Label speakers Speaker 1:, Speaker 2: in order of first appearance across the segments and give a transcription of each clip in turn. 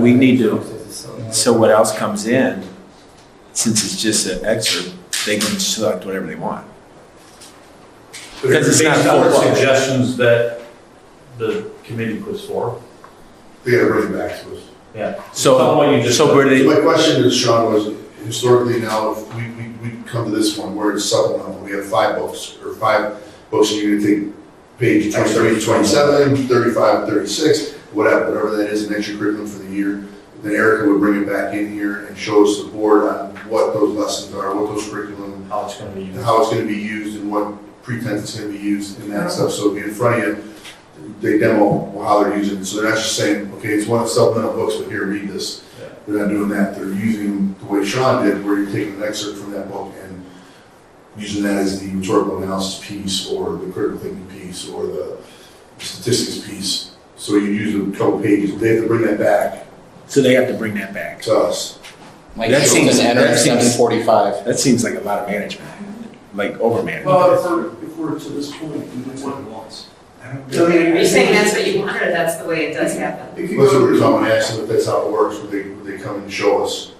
Speaker 1: We need to, so what else comes in, since it's just an excerpt, they can select whatever they want. Because it's not
Speaker 2: Based on the
Speaker 1: full blown.
Speaker 2: suggestions that the committee puts forward.
Speaker 3: They gotta bring it back to us.
Speaker 2: Someone you
Speaker 1: So,
Speaker 2: just-
Speaker 1: so where they,
Speaker 3: My question is, Sean, was historically now, if we, we, we come to this one, we're in supplemental, we have five books, or five books, and you're gonna take page 23, 27, 35, 36, whatever, whatever that is, an extra curriculum for the year. Then Erica would bring it back in here and show us the board on what those lessons are, what those curriculum
Speaker 2: How it's gonna be
Speaker 3: and
Speaker 2: used.
Speaker 3: how it's gonna be used and what pretense it's gonna be used and that stuff, so it'll be in front of you. They demo how they're using it, so they're not just saying, okay, it's one of supplemental books, but here, read this.
Speaker 2: Yeah.
Speaker 3: They're not doing that, they're using the way Sean did, where you're taking an excerpt from that book and using that as the rhetorical analysis piece, or the critical thinking piece, or the statistics piece. So you use a couple pages, they have to bring that back
Speaker 1: so they have to bring that back.
Speaker 3: to us.
Speaker 4: Like
Speaker 1: That
Speaker 4: that
Speaker 1: seems-
Speaker 4: seems enter
Speaker 1: that
Speaker 4: at
Speaker 1: seems-
Speaker 4: seven forty-five.
Speaker 1: That seems like a lot of management, like over
Speaker 5: Well,
Speaker 1: management.
Speaker 5: if we're, if we're to this point, we would want once.
Speaker 6: Are you saying that's what you want, or that's the way it does happen?
Speaker 3: That's what we're talking, I asked them if that's how it works, would they, would they come and show us?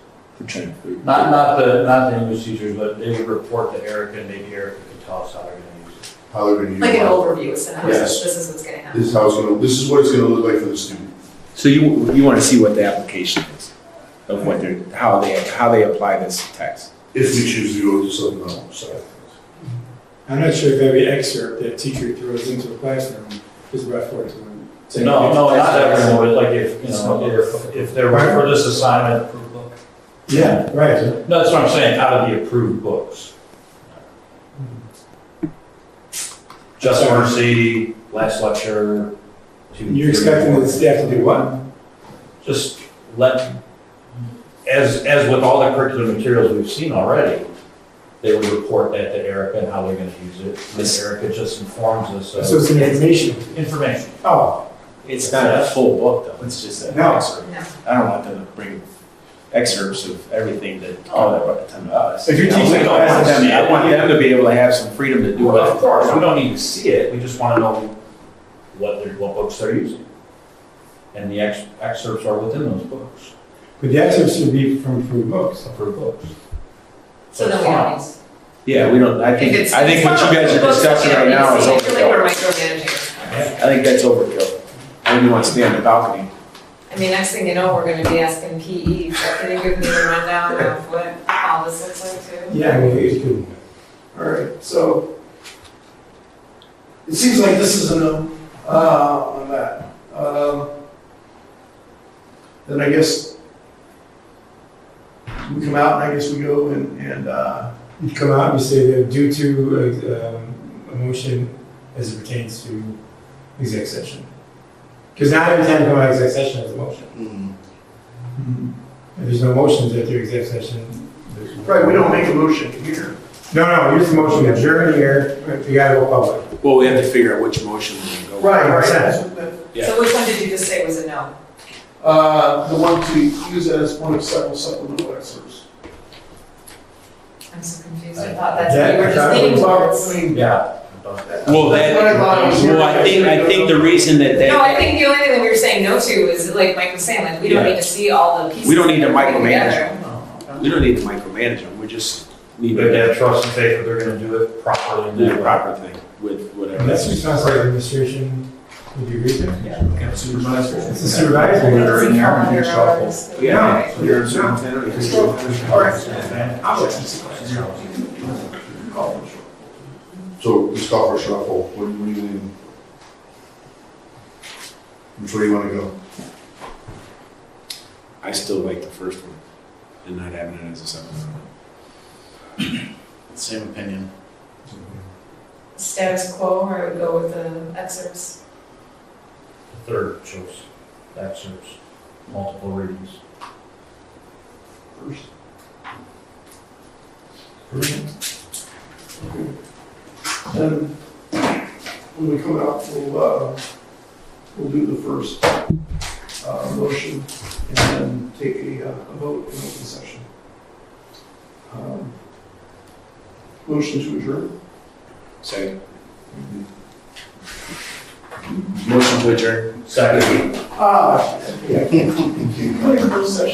Speaker 1: We're trying to-
Speaker 2: Not, not the, not the English teachers, but they would report to Erica and maybe Erica could tell us how they're gonna use it.
Speaker 3: how they're gonna use
Speaker 6: Like an
Speaker 3: it.
Speaker 6: overview, so now
Speaker 3: Yes.
Speaker 6: this is what's gonna happen.
Speaker 3: This is how it's gonna, this is what it's gonna look like for the student.
Speaker 1: So you, you want to see what the application is of what they're, how they, how they apply this text.
Speaker 3: If we choose to go to something else, sorry.
Speaker 7: I'm not sure if every excerpt that teacher throws into a classroom is brought forward to them. Saying,
Speaker 2: No, no, not
Speaker 7: "That's-
Speaker 2: everyone, but like if, you know, if, if there were for this assignment.
Speaker 7: Yeah, right.
Speaker 2: No, that's what I'm saying, out of the approved books. Just Mercy, last lecture. two,
Speaker 7: You're
Speaker 2: three,
Speaker 7: expecting
Speaker 2: four.
Speaker 7: the staff to do what?
Speaker 2: just let, as, as with all the curriculum materials we've seen already, they would report that to Erica and how they're gonna use it. And
Speaker 1: Yes.
Speaker 2: Erica just informs us
Speaker 7: So
Speaker 2: of
Speaker 7: it's an information.
Speaker 2: information.
Speaker 7: Oh,
Speaker 1: It's not a full book though, it's just an
Speaker 7: No.
Speaker 1: excerpt.
Speaker 6: No.
Speaker 1: I don't want them to bring excerpts of everything that, oh, that brought them to us.
Speaker 7: If you're teaching
Speaker 1: I don't want them- I want them to be able to have some freedom to do
Speaker 2: Well,
Speaker 1: what.
Speaker 2: of course, we don't need to see it, we just wanna know what they're, what books they're using. And the ex- excerpts are within those books,
Speaker 7: but the excerpt should be from approved books.
Speaker 2: approved books.
Speaker 6: So then we don't need.
Speaker 1: Yeah, we don't, I
Speaker 6: if
Speaker 1: think,
Speaker 6: it's-
Speaker 1: I think what you guys are discussing right now is
Speaker 6: It's really we're
Speaker 1: overkill.
Speaker 6: micromanaging.
Speaker 1: I think that's overkill. When you want to stay on the balcony.
Speaker 6: I mean, next thing you know, we're gonna be asking E, PE, so can you give me the rundown of what all this looks like too?
Speaker 7: Yeah, I mean, it's good.
Speaker 5: All right, so it seems like this is a no uh, on that. Um, Then I guess we come out and I guess we go and, and, uh,
Speaker 7: You come out and you say that due to uh, um, a motion as it pertains to exec session. Because not every time you come out of exec session is a motion. If there's no motions after exec session. there's-
Speaker 5: right, we don't make a motion here.
Speaker 7: No, no, here's the motion, adjourn here, you gotta go public.
Speaker 1: Well, we have to figure out which motion we're going to go.
Speaker 5: Right, right.
Speaker 7: Consent.
Speaker 5: that's what that-
Speaker 1: Yeah.
Speaker 6: So which one did you just say was a no?
Speaker 5: Uh, The one to use as one of several supplemental excerpts.
Speaker 6: I'm so confused, I thought that's what you were
Speaker 7: Yeah, I
Speaker 6: just
Speaker 7: thought it
Speaker 6: leaning
Speaker 7: was
Speaker 6: towards.
Speaker 2: Yeah. about that.
Speaker 1: Well, that,
Speaker 5: That's what I thought I was hearing.
Speaker 1: well, I think, I think the reason that they,
Speaker 6: No, I think the only thing that we were saying no to is, like Mike was saying, like, we don't
Speaker 1: Yeah.
Speaker 6: need to see all the pieces.
Speaker 1: We don't need to
Speaker 6: that are put
Speaker 1: micromanage.
Speaker 6: together.
Speaker 1: we don't need to micromanage them, we just need
Speaker 2: But they
Speaker 1: to
Speaker 2: have trust and faith that they're gonna do it properly. and
Speaker 1: do the
Speaker 2: well.
Speaker 1: proper thing with whatever.
Speaker 7: That's the responsibility of administration, would you agree there? It's the
Speaker 1: Supervisor.
Speaker 7: supervisor.
Speaker 6: That's how they're always-
Speaker 1: Yeah.
Speaker 7: No.
Speaker 1: You're a superintendent.
Speaker 5: All right.
Speaker 3: So let's call for a shuffle, what do you mean? Which way you wanna go?
Speaker 1: I still like the first one and not having it as a supplemental.
Speaker 4: Same opinion.
Speaker 6: Status quo, or I would go with the excerpts.
Speaker 2: Third choice, excerpts, multiple readings.
Speaker 5: Then when we come out, we'll, uh, we'll do the first, uh, motion and then take a, uh, a vote in open session. Um, Motion to adjourn.
Speaker 1: Second. Motion to adjourn.
Speaker 8: Second.
Speaker 3: Ah, yeah, I can't, I can't, close session.